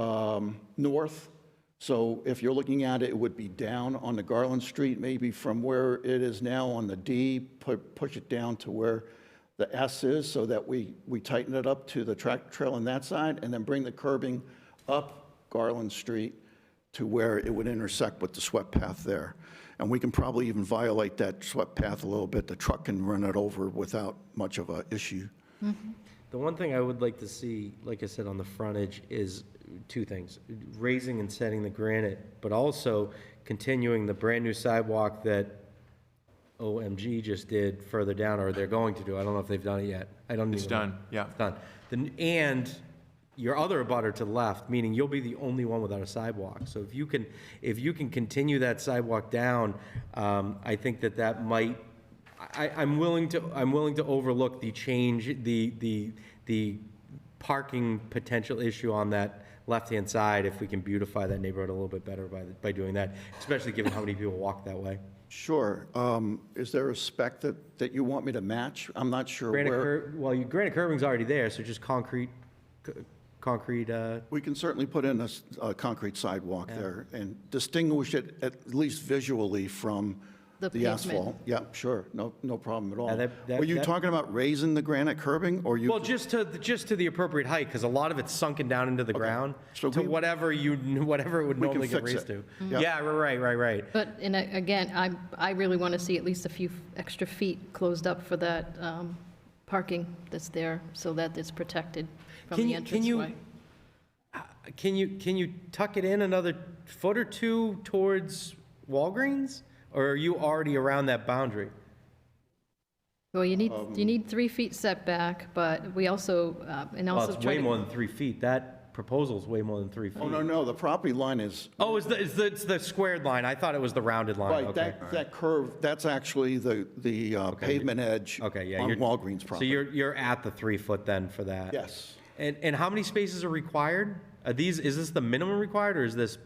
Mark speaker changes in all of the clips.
Speaker 1: um, north. So if you're looking at it, it would be down on the Garland Street, maybe from where it is now on the D, pu- push it down to where the S is, so that we, we tighten it up to the track trail on that side, and then bring the curbing up Garland Street to where it would intersect with the swept path there. And we can probably even violate that swept path a little bit. The truck can run it over without much of a issue.
Speaker 2: The one thing I would like to see, like I said, on the frontage is two things, raising and setting the granite, but also continuing the brand-new sidewalk that OMG just did further down, or they're going to do. I don't know if they've done it yet. I don't even.
Speaker 3: It's done, yeah.
Speaker 2: It's Done. Then- And your other abutter to the left, meaning you'll be the only one without a sidewalk. So if you can, if you can continue that sidewalk down, um, I think that that might, I, I- I'm willing to, I'm willing to overlook the change, the, the, the parking potential issue on that left-hand side if we can beautify that neighborhood a little bit better by, by doing that, especially given how many people walk that way.
Speaker 1: Sure. Um, Is there a spec that, that you want me to match? I'm not sure
Speaker 2: Granite
Speaker 1: where.
Speaker 2: curb, well, you, granite curbing's already there, so just concrete, c- concrete, uh,
Speaker 1: We can certainly put in a, s- a concrete sidewalk there and distinguish it at least visually from
Speaker 4: The
Speaker 1: the
Speaker 4: pavement.
Speaker 1: asphalt. Yeah, sure. No, no problem at all.
Speaker 2: that- that-
Speaker 1: Were you
Speaker 2: that-
Speaker 1: talking about raising the granite curbing or you?
Speaker 2: well, just to, just to the appropriate height, because a lot of it's sunken down into the ground,
Speaker 1: So
Speaker 2: to
Speaker 1: we-
Speaker 2: whatever you, whatever it Mm-hmm. would
Speaker 1: We can
Speaker 2: normally get
Speaker 1: fix
Speaker 2: raised to.
Speaker 1: it. Mhm.
Speaker 2: Yeah, right, right, right, right.
Speaker 4: But, and I- again, I, I really want to see at least a few extra feet closed up for that um, parking that's there, so that it's protected from
Speaker 2: Can
Speaker 4: the
Speaker 2: you- can you-
Speaker 4: entranceway.
Speaker 2: Can you, can you tuck it in another foot or two towards Walgreens? Or are you already around that boundary?
Speaker 4: Well, you need,
Speaker 2: Um,
Speaker 4: you need three feet setback, but we also, uh, and
Speaker 2: Well,
Speaker 4: also
Speaker 2: it's
Speaker 4: try
Speaker 2: way more
Speaker 4: to,
Speaker 2: than three feet. That proposal's way more than three
Speaker 1: Oh, no,
Speaker 2: feet.
Speaker 1: no, the property line is,
Speaker 2: Oh, it's the, it's the, it's the squared line. I thought it was the rounded line.
Speaker 1: right,
Speaker 2: Oh, Okay.
Speaker 1: that, that curve, that's actually the, the uh, pavement edge
Speaker 2: Okay, yeah.
Speaker 1: on
Speaker 2: you're-
Speaker 1: Walgreens
Speaker 2: So
Speaker 1: property.
Speaker 2: you're, you're at the three foot then for that?
Speaker 1: Yes.
Speaker 2: And, and how many spaces are required? Are these, is this the minimum required or is this,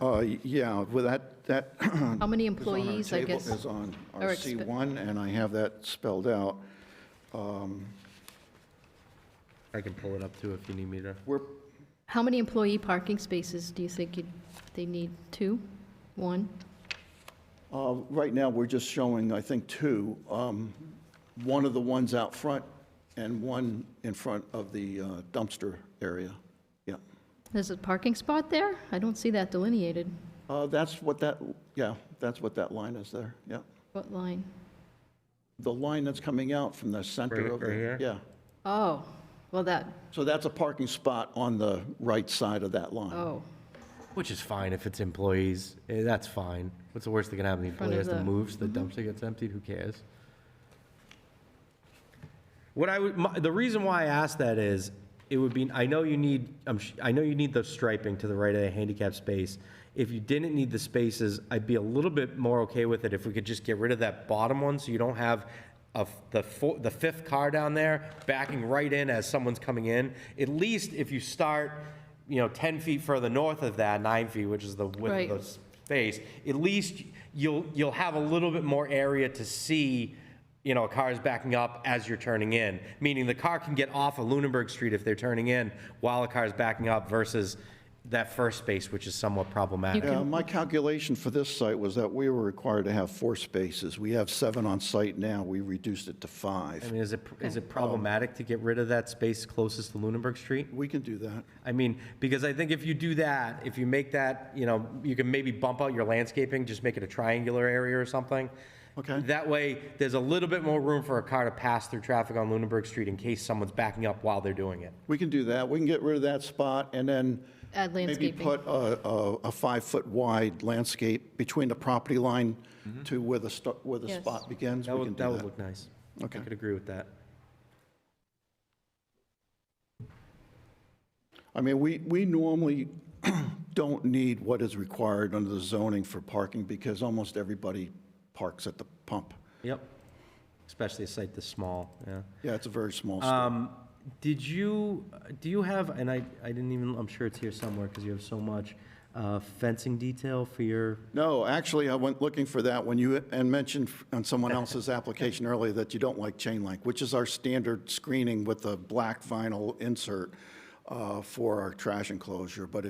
Speaker 1: Uh, yeah, with that, that
Speaker 4: how many
Speaker 1: is on our
Speaker 4: employees, I
Speaker 1: table-
Speaker 4: guess?
Speaker 1: Is on
Speaker 4: are
Speaker 1: our
Speaker 4: expe-
Speaker 1: C1 and I have that spelled out.
Speaker 2: I can pull it up too if you need me to.
Speaker 1: We're,
Speaker 4: How many employee parking spaces do you think you'd- they need? Two? One?
Speaker 1: Uh, Right now, we're just showing, I think, two. Um, One of the ones out front and one in front of the uh, dumpster area. Yeah.
Speaker 4: There's a parking spot there? I don't see that delineated.
Speaker 1: Uh, That's what that, yeah, that's what that line is there, yeah.
Speaker 4: What line?
Speaker 1: The line that's coming out from the center
Speaker 2: Right-
Speaker 1: of the...
Speaker 2: right here?
Speaker 1: Yeah.
Speaker 4: Oh, well, that,
Speaker 1: So that's a parking spot on the right side of that line.
Speaker 4: oh,
Speaker 2: Which is fine if it's employees, Eh, that's fine. What's the worst that can happen? The
Speaker 4: Front
Speaker 2: employee has
Speaker 4: of
Speaker 2: to
Speaker 4: the- Mm-hmm.
Speaker 2: move, so the dumpster gets emptied, who cares? What I would, my- the reason why I asked that is, it would be, I know you need, I'm sh- I know you need the striping to the right of the handicap space. If you didn't need the spaces, I'd be a little bit more okay with it if we could just get rid of that bottom one, so you don't have a f the four, the fifth car down there backing right in as someone's coming in. At least if you start, you know, ten feet further north of that, nine feet, which is the width
Speaker 4: Right.
Speaker 2: of the space, at least you'll, you'll have a little bit more area to see, you know, a car is backing up as you're turning in, meaning the car can get off of Lunenburg Street if they're turning in while a car is backing up versus that first space, which is somewhat problematic.
Speaker 1: Yeah, my calculation for this site was that we were required to have four spaces. We have seven on site now. We reduced it to
Speaker 2: I
Speaker 1: five.
Speaker 2: mean, is it, is it problematic to get rid of that space closest to Lunenburg Street?
Speaker 1: We can do that.
Speaker 2: I mean, because I think if you do that, if you make that, you know, you can maybe bump out your landscaping, just make it a triangular area or something.
Speaker 1: Okay.
Speaker 2: That way, there's a little bit more room for a car to pass through traffic on Lunenburg Street in case someone's backing up while they're doing it.
Speaker 1: We can do that. We can get rid of that spot and then
Speaker 4: Add
Speaker 1: maybe
Speaker 4: landscaping.
Speaker 1: put a, a, a five-foot wide landscape between the property line to where the, sto- where the
Speaker 4: Yes.
Speaker 1: spot begins.
Speaker 2: Mm-hmm. That
Speaker 1: We can
Speaker 2: would, that
Speaker 1: do
Speaker 2: would
Speaker 1: that.
Speaker 2: look nice. I
Speaker 1: Okay.
Speaker 2: could agree with that.
Speaker 1: I mean, we, we normally don't need what is required under the zoning for parking because almost everybody parks at the pump.
Speaker 2: Yep. Especially a site this small, yeah.
Speaker 1: Yeah, it's a very small store.
Speaker 2: Um, did you, do you have, and I, I didn't even, I'm sure it's here somewhere because you have so much, uh, fencing detail for your
Speaker 1: No, actually, I went looking for that when you, and mentioned on someone else's application earlier that you don't like chain link, which is our standard screening with the black vinyl insert uh, for our trash enclosure. But if